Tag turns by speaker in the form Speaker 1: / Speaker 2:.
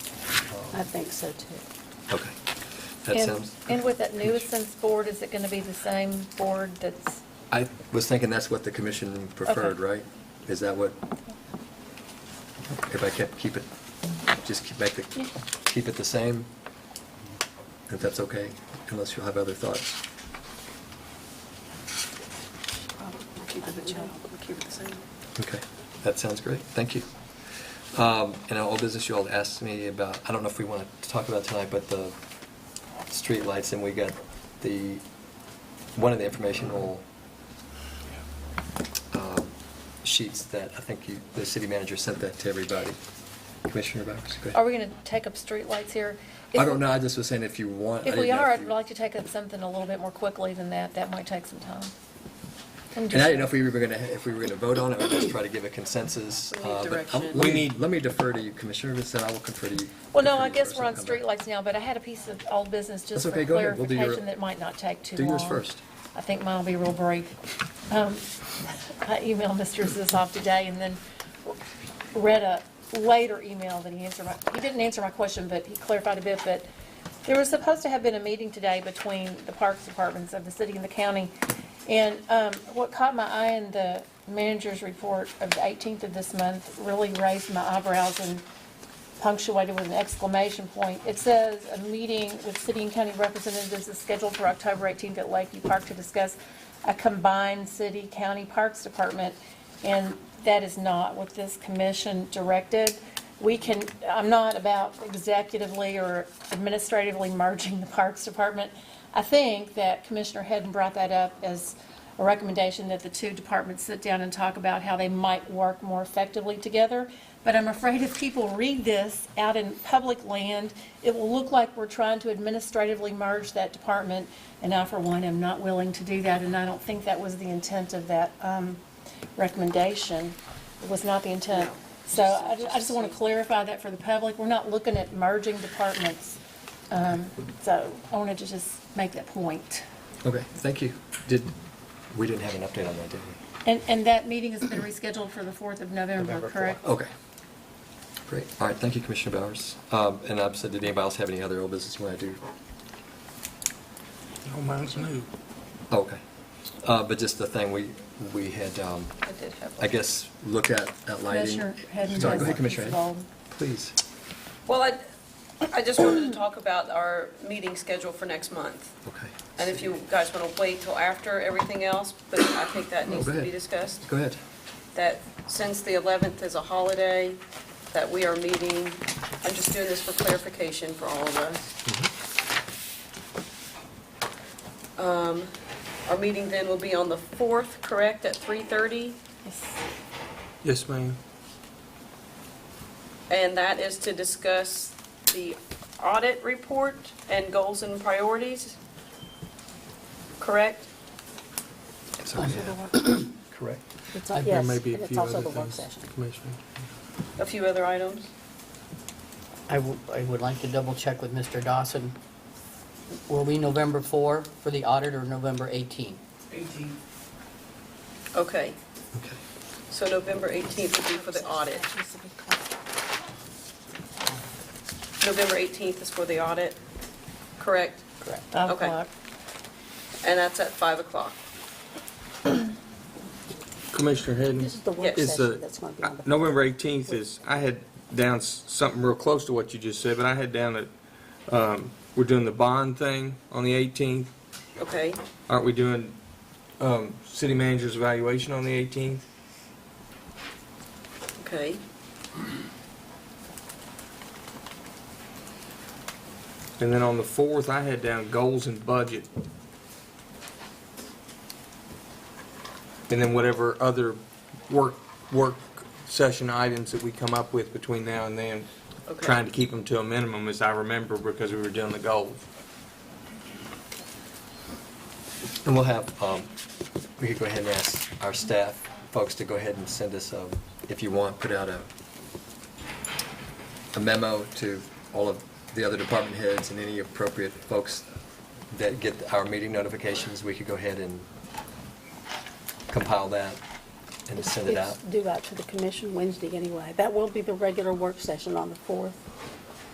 Speaker 1: I think so too.
Speaker 2: Okay. That
Speaker 3: And-
Speaker 2: sounds.
Speaker 3: And with that nuisance board, is it going to be the same board that's,
Speaker 2: I was thinking that's what the commission preferred,
Speaker 3: Okay.
Speaker 2: right? Is that what? If I kept, keep it, just keep, make the,
Speaker 3: Yeah.
Speaker 2: keep it the same? If that's okay, unless you'll have other thoughts.
Speaker 1: Keep it the keep it the same.
Speaker 2: Okay, that sounds great, thank you. Um, In our old business, you all asked me about, I don't know if we want to talk about tonight, but the streetlights, and we got the, one of the informational um, sheets that I think you, the city manager sent that to everybody. Commissioner Bowers, go ahead.
Speaker 3: are we going to take up streetlights here?
Speaker 2: I don't know, I just was saying if you want. I
Speaker 3: If we
Speaker 2: didn't know
Speaker 3: are, I'd
Speaker 2: you-
Speaker 3: like to take up something a little bit more quickly than that. That might take some time. I'm
Speaker 2: And I
Speaker 3: just-
Speaker 2: didn't know if we were going to, if we were going to vote on it or just try to give a consensus.
Speaker 1: We
Speaker 2: uh,
Speaker 1: need
Speaker 2: but I'm-
Speaker 1: direction.
Speaker 2: let
Speaker 4: We
Speaker 2: me-
Speaker 4: need-
Speaker 2: Let me defer to you, Commissioner, and then I will confer to you.
Speaker 3: Well, no,
Speaker 2: confer
Speaker 3: I
Speaker 2: to you
Speaker 3: guess
Speaker 2: first
Speaker 3: we're on
Speaker 2: and come back.
Speaker 3: streetlights now, but I had a piece of old business just
Speaker 2: That's
Speaker 3: for
Speaker 2: okay, go ahead. We'll do your-
Speaker 3: clarification that might not take too
Speaker 2: Do
Speaker 3: long.
Speaker 2: yours first.
Speaker 3: I think mine will be real brief. Um, I emailed Mr. Zissoff today and then read a later email that he answered my, he didn't answer my question, but he clarified a bit, but there was supposed to have been a meeting today between the Parks Departments of the city and the county. And um, what caught my eye in the manager's report of the 18th of this month really raised my eyebrows and punctuated with an exclamation point. It says, "A meeting with city and county representatives is scheduled for October 18th at Lakeview Park to discuss a combined city-county parks department." And that is not what this commission directed. We can, I'm not about executively or administratively merging the parks department. I think that Commissioner Hedden brought that up as a recommendation that the two departments sit down and talk about how they might work more effectively together. But I'm afraid if people read this out in public land, it will look like we're trying to administratively merge that department. And I, for one, am not willing to do that, and I don't think that was the intent of that um, recommendation. It was not the intent. So I ju- I just want to clarify that for the public. We're not looking at merging departments. Um, So I wanted to just make that point.
Speaker 2: Okay, thank you. Did, we didn't have an update on that, did we?
Speaker 3: And, and that meeting has been rescheduled for the 4th of November, correct?
Speaker 2: Okay. Great. All right, thank you, Commissioner Bowers. Um, And I've said, did anybody else have any other old business you want to do?
Speaker 4: No, mine's new.
Speaker 2: Oh, Okay. Uh, But just the thing, we, we had, um,
Speaker 3: I did have one.
Speaker 2: I guess, look at, at lighting.
Speaker 3: Commissioner Hadden
Speaker 2: Sorry,
Speaker 3: has
Speaker 2: go ahead, Commissioner.
Speaker 3: his
Speaker 2: Hadden.
Speaker 3: vote.
Speaker 2: Please.
Speaker 5: Well, I, I just wanted to talk about our meeting schedule for next month.
Speaker 2: Okay.
Speaker 5: And if you guys want to wait till after everything else, but I think that
Speaker 2: No,
Speaker 5: needs
Speaker 2: Oh, go
Speaker 5: to be
Speaker 2: ahead.
Speaker 5: discussed.
Speaker 2: Go ahead.
Speaker 5: That since the 11th is a holiday, that we are meeting, I'm just doing this for clarification for all of us.
Speaker 2: Mm-hmm.
Speaker 5: Um, Our meeting then will be on the 4th, correct, at 3:30?
Speaker 3: Yes.
Speaker 4: Yes, ma'am.
Speaker 5: And that is to discuss the audit report and goals and priorities, correct?
Speaker 2: So,
Speaker 1: Also
Speaker 2: yeah.
Speaker 1: the work-
Speaker 2: Correct.
Speaker 1: it's
Speaker 4: I
Speaker 1: al-
Speaker 4: think there
Speaker 1: Yes,
Speaker 4: may be a
Speaker 1: and it's
Speaker 4: few
Speaker 1: also
Speaker 4: other
Speaker 1: the work
Speaker 4: things,
Speaker 1: session.
Speaker 4: Commissioner.
Speaker 5: A few other items?
Speaker 6: I w- I would like to double check with Mr. Dawson. Were we November 4 for the audit or November 18?
Speaker 2: Okay.
Speaker 5: Okay, so November 18th would be for the audit. November 18th is for the audit, correct?
Speaker 6: Correct.
Speaker 3: Five
Speaker 5: Okay.
Speaker 3: o'clock.
Speaker 5: And that's at 5 o'clock.
Speaker 4: Commissioner uh, Hadden,
Speaker 1: This is the
Speaker 5: Yes.
Speaker 1: work
Speaker 4: is
Speaker 2: uh,
Speaker 1: session
Speaker 4: the,
Speaker 1: that's going to be on the.
Speaker 4: November 18th is, I had down s- something real close to what you just said, but I had down that, um, we're doing the bond thing on the 18th.
Speaker 5: Okay,
Speaker 4: Aren't we doing um, city manager's evaluation on the 18th?
Speaker 5: okay.
Speaker 4: And then on the 4th, I had down goals and budget. And then whatever other work, work session items that we come up with between now and then,
Speaker 5: Okay.
Speaker 4: trying to keep them to a minimum as I remember because we were doing the goals.
Speaker 2: And we'll have, um, we could go ahead and ask our staff folks to go ahead and send us, um, if you want, put out a, a memo to all of the other department heads and any appropriate folks that get our meeting notifications, we could go ahead and compile that and
Speaker 1: It's
Speaker 2: send it out.
Speaker 1: it's due out to the commission Wednesday anyway. That will be the regular work session on the 4th.